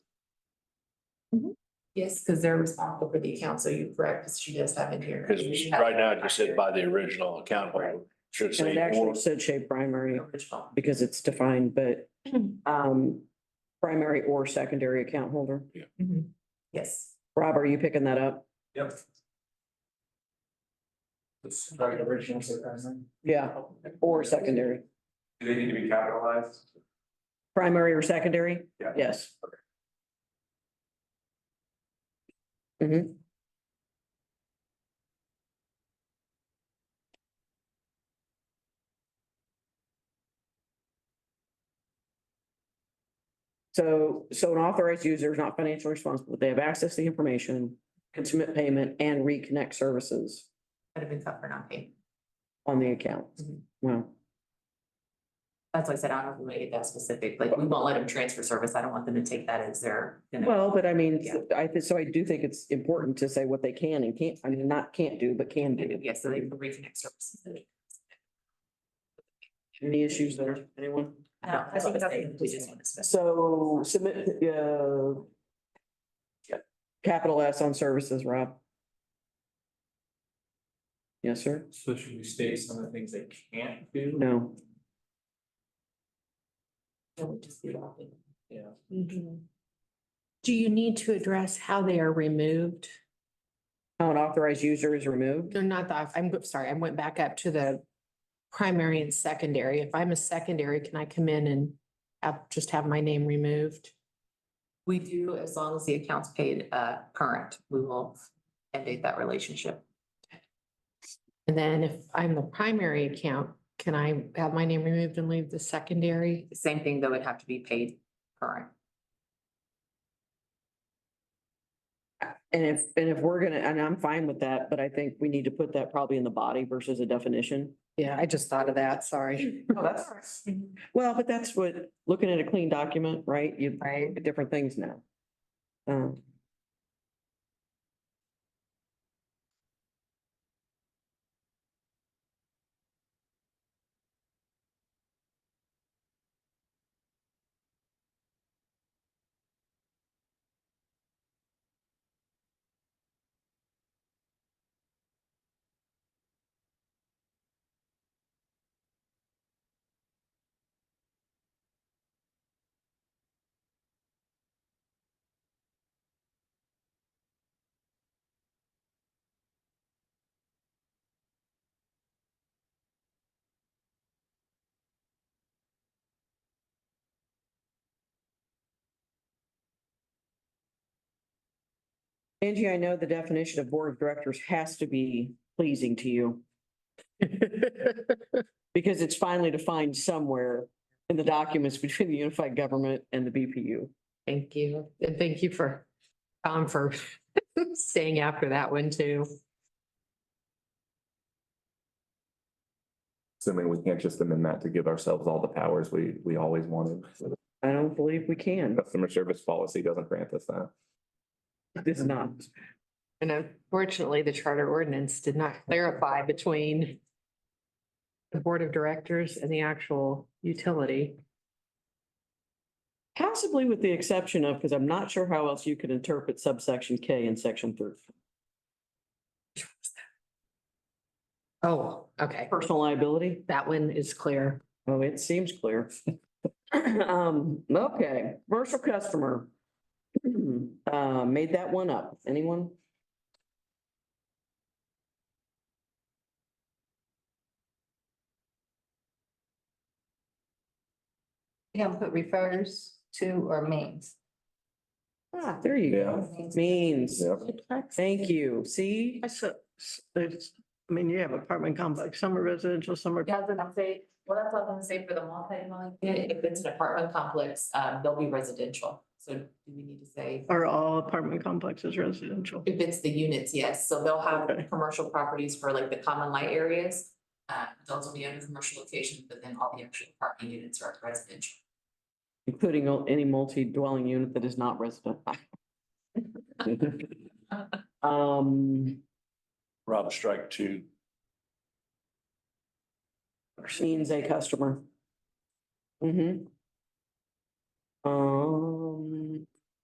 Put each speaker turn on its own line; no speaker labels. Mhm. Yes, because they're responsible for the account, so you're correct, because she does have it here.
Because right now, it just said by the original account holder, should
And it
say
actually
or.
said shape primary
Original.
because it's defined, but um, primary or secondary account holder.
Mm-hmm.
Mhm. Yes.
Rob, are you picking that up?
Yep. It's like original surprising.
Yeah, or secondary,
Do they need to be capitalized?
primary or secondary?
Yeah.
Yes. Mm-hmm. So, so an authorized user is not financially responsible. They have access to the information, can submit payment and reconnect services
That'd have been tough for not paying.
on the account.
Mhm.
Wow.
That's why I said I don't know if we made it that specific, like, we won't let them transfer service. I don't want them to take that as their. you know.
Well, but I mean,
Yeah.
I, thi- so I do think it's important to say what they can and can't, I mean, not can't do, but can do.
Yeah, so they can reconnect services.
Any issues there, anyone?
I don't, I think that's. We just want to specify.
So submit, uh, capital S on services, Rob. Yes, sir?
So should we state some of the things they can't do?
No.
That would just be all in.
Yeah.
mm-hmm. Do you need to address how they are removed?
How an authorized user is removed?
They're not the, I'm sorry, I went back up to the primary and secondary. If I'm a secondary, can I come in and have- just have my name removed?
We do, as long as the account's paid, uh, current, we will endate that relationship.
And then if I'm the primary account, can I have my name removed and leave the secondary?
Same thing, though, it'd have to be paid current.
And if, and if we're gonna, and I'm fine with that, but I think we need to put that probably in the body versus a definition.
Yeah, I just thought of that, sorry.
Oh, that's. Well, but that's what, looking at a clean document, right? You
Right.
at different things now. Um, Angie, I know the definition of board of directors has to be pleasing to you because it's finally defined somewhere in the documents between the unified government and the BPU.
Thank you, and thank you for, um, for staying after that one too.
Assuming we can't just amend that to give ourselves all the powers we, we always wanted. So
I don't believe we can.
the Customer service policy doesn't grant us that.
It's not.
And unfortunately, the charter ordinance did not clarify between the board of directors and the actual utility.
Possibly with the exception of, because I'm not sure how else you could interpret subsection K in section thirty.
Oh, okay.
Personal liability?
That one is clear.
Oh, it seems clear. Um, okay, commercial customer. Uh, made that one up. Anyone?
Yeah, put refers to or means.
Ah, there you go. Means.
Yep.
Thank you. See?
I said, there's, I mean, you have apartment complex, some are residential, some are.
Yeah, I was gonna say, well, that's what I was gonna say for the multi-dwelling unit, if it's an apartment complex, um, they'll be residential. So do we need to say,
Are all apartment complexes residential?
if it's the units, yes, so they'll have
Okay.
commercial properties for like the common light areas. Uh, those will be under commercial location, but then all the actual apartment units are residential.
Including any multi-dwelling unit that is not resident. Um,
Rob, strike two.
means a customer. Mm-hmm. Um,